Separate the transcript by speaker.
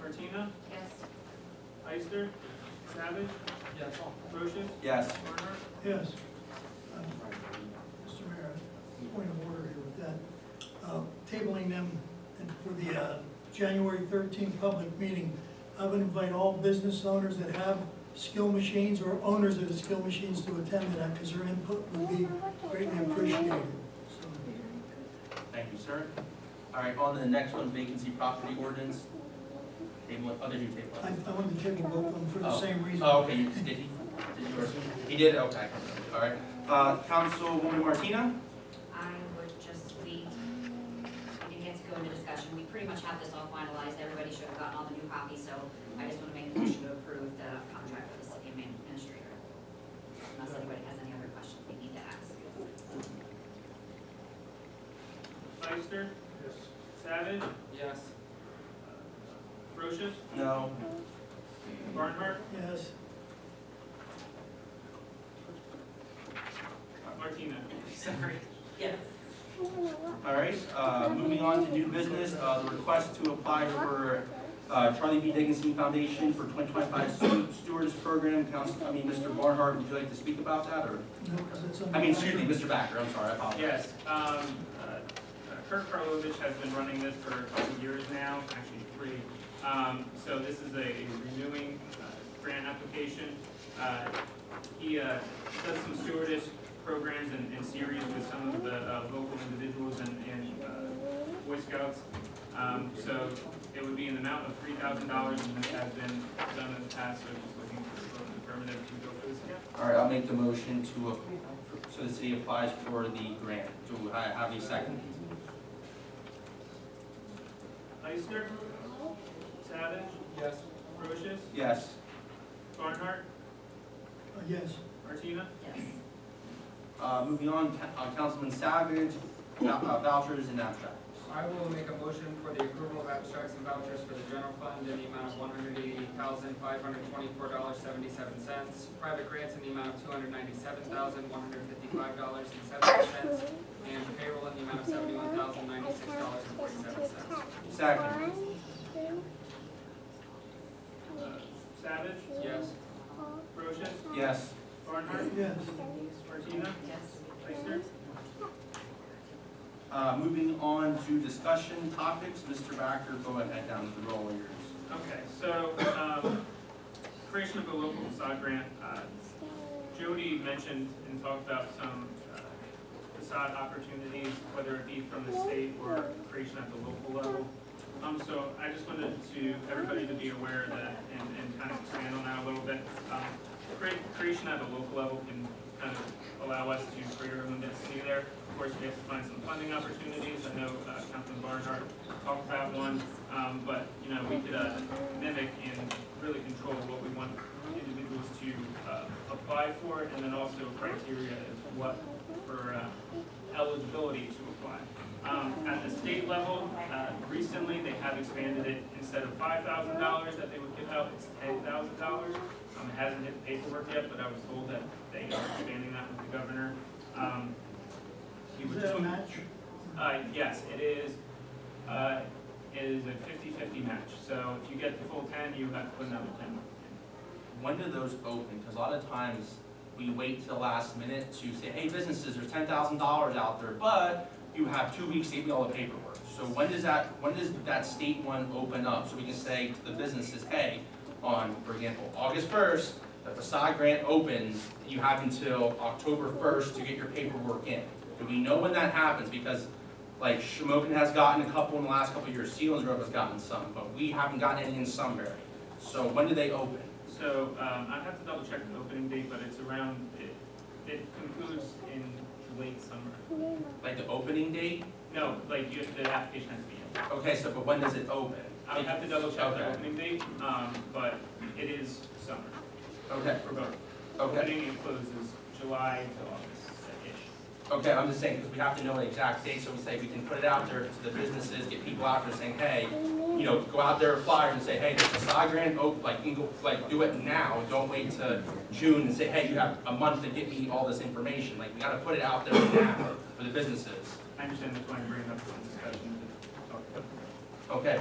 Speaker 1: Martina,
Speaker 2: Yes.
Speaker 1: Ister, Savage,
Speaker 3: Yes.
Speaker 1: Procius,
Speaker 4: Yes.
Speaker 1: Turner,
Speaker 5: Yes. Um, Mr. Mayor, point of order here with that. Uh, Tabling them and for the uh, January 13th public meeting, I would invite all business owners that have skill machines or owners of the skill machines to attend to that because their input would be greatly appreciated. So,
Speaker 4: Thank you, sir. All right, on to the next one, vacancy property ordinance. Table, it- oh, did you table
Speaker 5: I
Speaker 4: it?
Speaker 5: I wanted to table both of them for the
Speaker 4: Oh.
Speaker 5: same reason.
Speaker 4: Oh, okay, you- did he, did you, or- he did, okay, all right. Uh, Councilwoman Martina?
Speaker 2: I would just, we didn't get to go into discussion, we pretty much have this all finalized, everybody should have gotten all the new copies, so I just want to make a motion to approve the contract for the city administrator. Unless anybody has any other questions they need to ask.
Speaker 1: Ister, Savage,
Speaker 3: Yes.
Speaker 1: Procius,
Speaker 4: No.
Speaker 1: Barnhart,
Speaker 5: Yes.
Speaker 1: Martina.
Speaker 4: Sorry.
Speaker 2: Yes.
Speaker 4: All right, uh, moving on to new business, uh, the request to apply for, uh, Charlie B. Dickinson Foundation for 2025 Stu- Stewardess Program, Council, I mean, Mr. Barnhart, would you like to speak about that, or?
Speaker 5: No, 'cause it's on
Speaker 4: I mean,
Speaker 5: the-
Speaker 4: excuse me, Mr. Backer, I'm sorry, I apologize.
Speaker 1: Yes, um, uh, Kirk Karlovic has been running this for a couple of years now, actually three. Um, so this is a renewing uh, grant application. Uh, he, uh, does some stewardess programs and, and series with some of the, uh, local individuals and, and, uh, Boy Scouts. Um, so it would be an amount of three thousand dollars and this has been done in the past, so just looking for an affirmative to go for this again.
Speaker 4: All right, I'll make the motion to, a- so the city applies for the grant. Do I have a second?
Speaker 1: Ister, Savage,
Speaker 3: Yes.
Speaker 1: Procius,
Speaker 4: Yes.
Speaker 1: Barnhart,
Speaker 5: Uh, Yes.
Speaker 1: Martina,
Speaker 2: Yes.
Speaker 4: Uh, moving on, Ca- uh, Councilman Savage, vou- uh, vouchers and abstracts.
Speaker 3: I will make a motion for the approval of abstracts and vouchers for the general fund in the amount of one hundred eighty thousand, five hundred twenty-four dollars, seventy-seven cents. Private grants in the amount of two hundred ninety-seven thousand, one hundred fifty-five dollars and seventy cents. And payroll in the amount of seventy-one thousand, ninety-six dollars and forty-seven cents.
Speaker 4: Second.
Speaker 1: uh, Savage,
Speaker 3: Yes.
Speaker 1: Procius,
Speaker 4: Yes.
Speaker 1: Barnhart,
Speaker 5: Yes.
Speaker 1: Martina,
Speaker 2: Yes.
Speaker 1: Ister,
Speaker 4: Uh, moving on to discussion topics, Mr. Backer, go ahead down to the roll of yours.
Speaker 1: Okay, so, um, creation of a local facade grant, uh, Jody mentioned and talked about some uh, facade opportunities, whether it be from the state or creation at the local level. Um, so I just wanted to, everybody to be aware of that and, and kind of expand on that a little bit. Um, crea- creation at the local level can kind of allow us to create our own density there. Of course, we have to find some funding opportunities. I know, uh, Councilman Barnhart talked about one, um, but, you know, we could, uh, mimic and really control what we want individuals to uh, apply for, and then also criteria is what for uh, eligibility to apply. Um, At the state level, uh, recently, they have expanded it, instead of five thousand dollars that they would give out, it's ten thousand dollars. Um, It hasn't hit paperwork yet, but I was told that they are expanding that with the governor. Um, he
Speaker 5: Is
Speaker 1: would
Speaker 5: that a
Speaker 1: tweet-
Speaker 5: match?
Speaker 1: uh, yes, it is, uh, it is a fifty-fifty match, so if you get the full ten, you have to put another ten.
Speaker 4: When do those open? Because a lot of times, we wait till the last minute to say, hey, businesses, there's ten thousand dollars out there, but you have two weeks to give me all the paperwork. So when does that, when does that state one open up? So we can say to the businesses, hey, on, for example, August first, the facade grant opens, you have until October first to get your paperwork in. Do we know when that happens? Because like Shamokin has gotten a couple in the last couple of years, Sealands Grove has gotten some, but we haven't gotten any in Sunbury. So when do they open?
Speaker 1: So, um, I'd have to double check the opening date, but it's around, it, it concludes in late summer.
Speaker 4: Like the opening date?
Speaker 1: No, like, you, the application has to be in.
Speaker 4: Okay, so, but when does it open?
Speaker 1: I would have to double check the
Speaker 4: Okay.
Speaker 1: opening date, um, but it is summer
Speaker 4: Okay,
Speaker 1: for both.
Speaker 4: okay,
Speaker 1: Opening and closes July to August-ish.
Speaker 4: okay, I'm just saying, because we have to know the exact date, so we say we can put it out there to the businesses, get people out there saying, hey, you know, go out there, flyer and say, hey, this is Sagarin, oh, like, you can go, like, do it now, don't wait to June and say, hey, you have a month to get me all this information, like, we gotta put it out there now for the businesses.
Speaker 1: I understand that's why I'm bringing up the discussion to talk about.
Speaker 4: Okay,